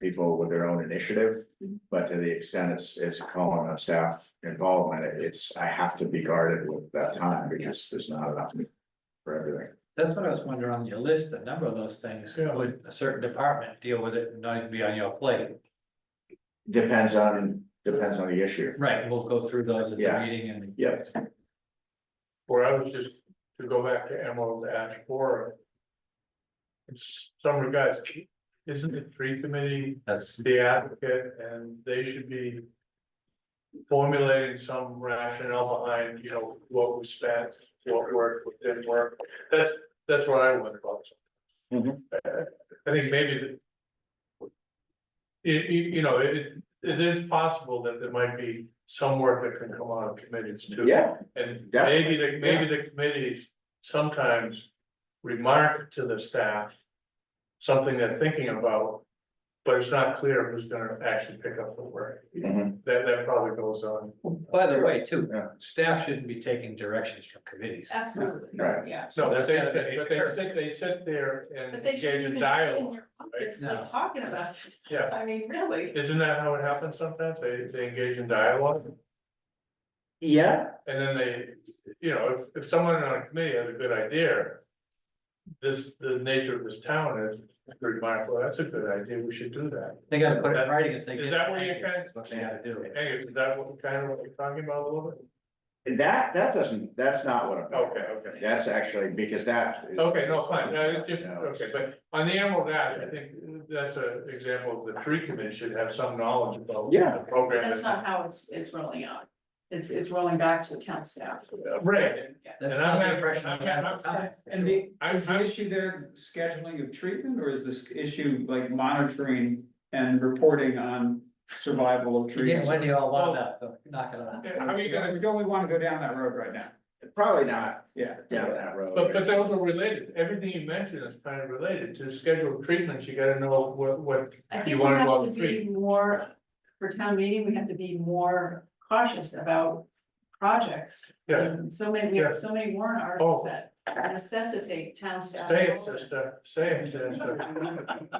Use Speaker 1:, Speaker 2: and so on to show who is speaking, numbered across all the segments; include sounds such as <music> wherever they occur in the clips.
Speaker 1: people with their own initiative. But to the extent it's, it's calling on staff involvement, it's, I have to be guarded with that time because there's not enough for everything.
Speaker 2: That's what I was wondering on your list, a number of those things,
Speaker 3: Yeah.
Speaker 2: would a certain department deal with it and not even be on your plate?
Speaker 1: Depends on, depends on the issue.
Speaker 2: Right, we'll go through those at the
Speaker 1: Yeah.
Speaker 2: meeting and.
Speaker 1: Yeah,
Speaker 3: Where I was just, to go back to Emerald Ash Borer. It's some regards, isn't the tree committee
Speaker 2: That's,
Speaker 3: the advocate and they should be. Formulating some rationale behind, you know, what was spent, what worked, what didn't work, that's, that's what I wonder about.
Speaker 1: Mhm.
Speaker 3: Uh, I think maybe the. You, you, you know, it, it is possible that there might be some work that can come out of committees too.
Speaker 1: yeah,
Speaker 3: And
Speaker 1: Definitely,
Speaker 3: maybe the, maybe the committees sometimes remark to the staff. Something they're thinking about, but it's not clear who's gonna actually pick up the work. That,
Speaker 1: mhm,
Speaker 3: that probably goes on.
Speaker 2: by the way, too,
Speaker 1: Yeah.
Speaker 2: staff shouldn't be taking directions from committees.
Speaker 4: Absolutely,
Speaker 1: Right.
Speaker 4: yeah.
Speaker 3: No,
Speaker 2: that's
Speaker 3: but they
Speaker 2: gotta
Speaker 3: sit,
Speaker 2: be
Speaker 3: but they
Speaker 2: fair.
Speaker 3: sit, they sit there and
Speaker 4: But they
Speaker 3: engage
Speaker 4: shouldn't
Speaker 3: in
Speaker 4: even be in
Speaker 3: dialogue,
Speaker 4: your office,
Speaker 2: No.
Speaker 4: like talking about,
Speaker 3: <laughs>
Speaker 4: s-
Speaker 3: yeah.
Speaker 4: I mean, really.
Speaker 3: Isn't that how it happens sometimes? They, they engage in dialogue
Speaker 1: yeah,
Speaker 3: and then they, you know, if, if someone on a committee has a good idea. This, the nature of this town is remark, well, that's a good idea, we should do that.
Speaker 2: They gotta put it in writing and say.
Speaker 3: Is that what you're
Speaker 2: That's What they gotta do.
Speaker 3: Hey, is that what, kind of what you're talking about a little bit?
Speaker 1: that, that doesn't, that's not what I'm.
Speaker 3: Okay, okay.
Speaker 1: That's actually because that. is-
Speaker 3: Okay, no, fine, no, it's just,
Speaker 1: You know, it's-
Speaker 3: okay, but on the Emerald Ash, I think that's an example of the tree committee should have some knowledge about. the
Speaker 1: Yeah.
Speaker 3: Program.
Speaker 4: That's not how it's, it's rolling out. It's, it's rolling back to the town staff.
Speaker 3: Uh, Right,
Speaker 4: Yeah.
Speaker 2: That's
Speaker 3: And I'm
Speaker 2: not the
Speaker 3: not-
Speaker 2: impression I
Speaker 3: I'm
Speaker 2: had
Speaker 3: not-
Speaker 2: at the time.
Speaker 5: And the,
Speaker 3: I,
Speaker 5: is the
Speaker 3: I,
Speaker 5: issue there scheduling of treatment, or is this issue like monitoring and reporting on survival of
Speaker 2: You get
Speaker 5: trees?
Speaker 2: when you all wound up, but knock it off.
Speaker 3: how are you
Speaker 5: We
Speaker 3: gonna,
Speaker 5: don't we wanna go down that road right now,
Speaker 1: Probably not
Speaker 5: yeah.
Speaker 1: down that road.
Speaker 3: but, but those are related, everything you mentioned is kind of related to scheduled treatments, you gotta know what, what
Speaker 4: I
Speaker 3: you
Speaker 4: think we
Speaker 3: wanna go
Speaker 4: have
Speaker 3: out
Speaker 4: to
Speaker 3: and
Speaker 4: be
Speaker 3: treat.
Speaker 4: more, for town meeting, we have to be more cautious about projects.
Speaker 3: Yes,
Speaker 4: And So many, we have
Speaker 3: Yes. Oh.
Speaker 4: so many warrant articles that necessitate town staff.
Speaker 3: say it, sister, say it, sister.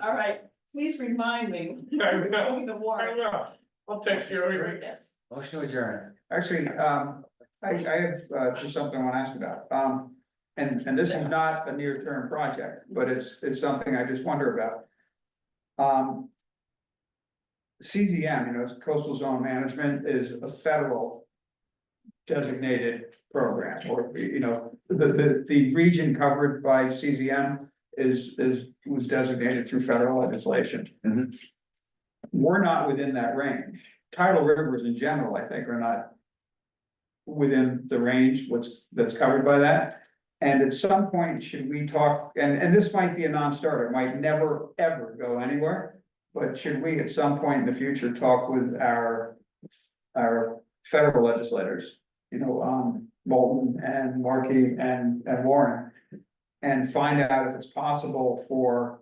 Speaker 4: All right, please remind me.
Speaker 3: <laughs> I will.
Speaker 4: <laughs> The
Speaker 3: I
Speaker 4: warrant.
Speaker 3: know, I'll text you every.
Speaker 4: Yes.
Speaker 2: Motion to adjourn.
Speaker 5: Actually, um, I, I have, uh, just something I wanna ask about, um, and, and this is not a near-term project, but it's, it's something I just wonder about. Um. CZM, you know, coastal zone management is a federal. Designated program, or, you know, the, the, the region covered by CZM is, is, was designated through federal legislation.
Speaker 1: Mhm.
Speaker 5: We're not within that range, tidal rivers in general, I think, are not within the range, what's, that's covered by that. And at some point, should we talk, and, and this might be a non-starter, might never, ever go anywhere. But should we at some point in the future talk with our, our federal legislators? You know, um, Bolton and Markey and, and Warren. And find out if it's possible for,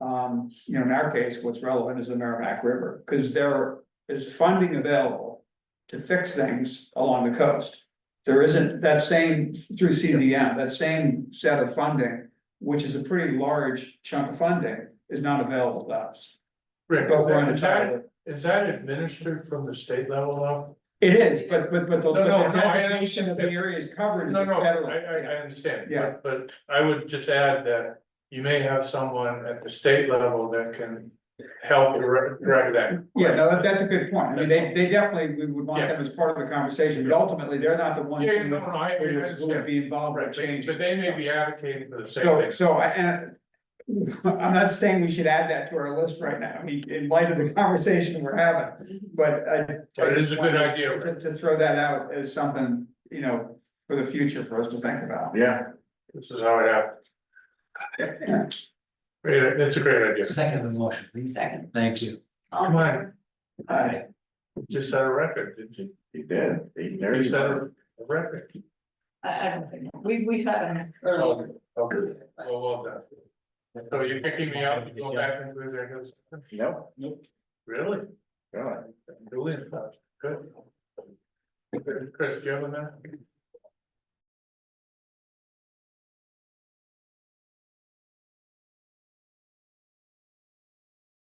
Speaker 5: um, you know, in our case, what's relevant is the Merrimack River. Cause there is funding available to fix things along the coast. There isn't that same through CDM, that same set of funding, which is a pretty large chunk of funding, is not available to us.
Speaker 3: Rick,
Speaker 5: But we're
Speaker 3: is that,
Speaker 5: entitled,
Speaker 3: is that administered from the state level now?
Speaker 5: it is, but but but the
Speaker 3: No, no,
Speaker 5: but the
Speaker 3: no, I
Speaker 5: designation of the
Speaker 3: understand.
Speaker 5: area is covered as
Speaker 3: No,
Speaker 5: a
Speaker 3: no,
Speaker 5: federal.
Speaker 3: I, I, I understand,
Speaker 5: Yeah.
Speaker 3: but, but I would just add that you may have someone at the state level that can help direct, direct that.
Speaker 5: Yeah, no, that that's a good point. I mean, they they definitely, we would want them as part of the conversation, but ultimately, they're not the ones.
Speaker 3: Yeah,
Speaker 5: who
Speaker 3: no,
Speaker 5: would-
Speaker 3: no, I, I
Speaker 5: who would- Who would
Speaker 3: understand,
Speaker 5: be involved
Speaker 3: right,
Speaker 5: with
Speaker 3: but,
Speaker 5: change.
Speaker 3: but they may be advocating for the same
Speaker 5: So,
Speaker 3: thing.
Speaker 5: so I, and <laughs> I'm not saying we should add that to our list right now, I mean, in light of the conversation we're having, but I.
Speaker 3: But it is a good idea.
Speaker 5: To, to throw that out as something, you know, for the future for us to think about.
Speaker 1: Yeah,
Speaker 3: This is how it happened.
Speaker 5: <coughs>
Speaker 3: Great, it's a great idea,
Speaker 2: Second the motion, please.
Speaker 4: Second.
Speaker 2: Thank you.
Speaker 3: come on,
Speaker 2: Alright.
Speaker 3: just set a record, did you,
Speaker 1: he did. He
Speaker 3: you
Speaker 1: there
Speaker 3: set
Speaker 1: you
Speaker 3: a a record.
Speaker 4: I, I don't think, we, we've had an
Speaker 3: Oh,
Speaker 4: early,
Speaker 3: okay. Well, well done. So you're picking me up, you go back into executive session?
Speaker 1: Nope,
Speaker 3: Really?
Speaker 1: really.
Speaker 3: Julian, good. Chris, do you have a minute?